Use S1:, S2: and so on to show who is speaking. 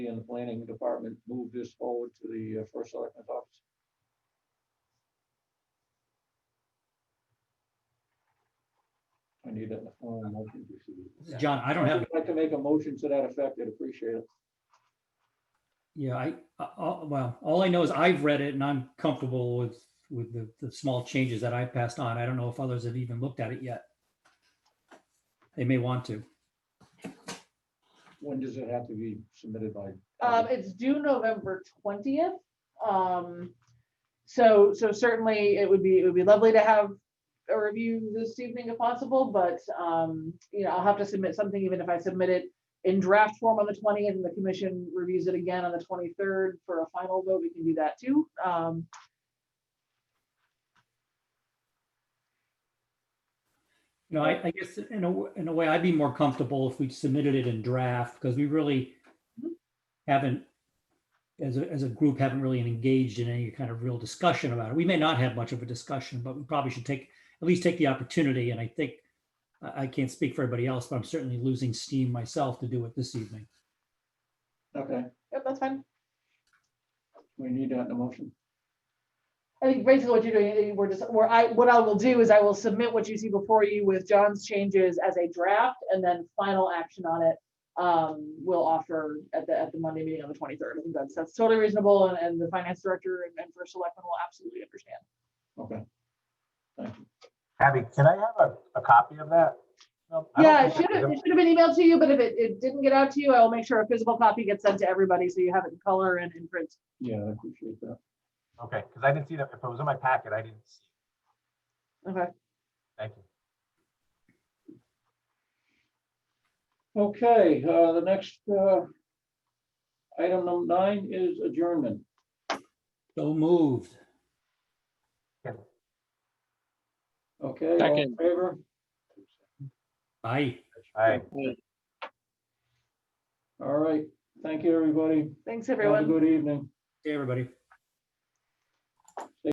S1: and the planning department move this forward to the uh, first selectman's office? I need that. in the form of motion.
S2: John, I don't have,
S1: I'd like to make a motion to that effect. I'd appreciate it.
S2: yeah, I, I- I- well, all I know is I've read it and I'm comfortable with, with the, the small changes that I passed on. I don't know if others have even looked at it yet. They may want to.
S1: When does it have to be submitted by?
S3: Um, it's due November twentieth. Um, so, so certainly it would be, it would be lovely to have a review this evening if possible, but, um, you know, I'll have to submit something, even if I submit it in draft form on the twentieth and the commission reviews it again on the twenty-third for a final vote, we can do that too. Um,
S2: You know, I, I guess in a, w- in a way, I'd be more comfortable if we submitted it in draft because we really haven't, as a, as a group, haven't really engaged in any kind of real discussion about it. We may not have much of a discussion, but we probably should take, at least take the opportunity. And I think, I, I can't speak for everybody else, but I'm certainly losing steam myself to do it this evening.
S1: Okay,
S3: yep, that's fine.
S1: we need that in the motion.
S3: I think basically what you're doing, eh, we're just, where I, what I will do is I will submit what you see before you with John's changes as a draft and then final action on it. Um, we'll offer at the, at the Monday meeting on the twenty-third. I think that's, that's totally reasonable and, and the finance director and, and first selectman will absolutely understand.
S1: Okay.
S4: Abby, can I have a, a copy of that? No, I don't
S3: Yeah, it
S4: think
S3: should
S4: I
S3: have,
S4: did.
S3: it should have been emailed to you, but if it, it didn't get out to you, I will make sure a physical copy gets sent to everybody so you have it in color and in print.
S1: Yeah, I appreciate that.
S4: Okay, because I didn't see that. If it was in my packet, I didn't see. it.
S3: Okay.
S4: Thank you.
S1: Okay, uh, the next, uh, item number nine is adjournment.
S2: So moved.
S1: Okay, all in
S5: Second.
S1: favor?
S2: Aye.
S4: All right.
S1: All right, thank you, everybody.
S3: Thanks,
S1: Have a
S3: everyone.
S1: good evening.
S2: Hey, everybody.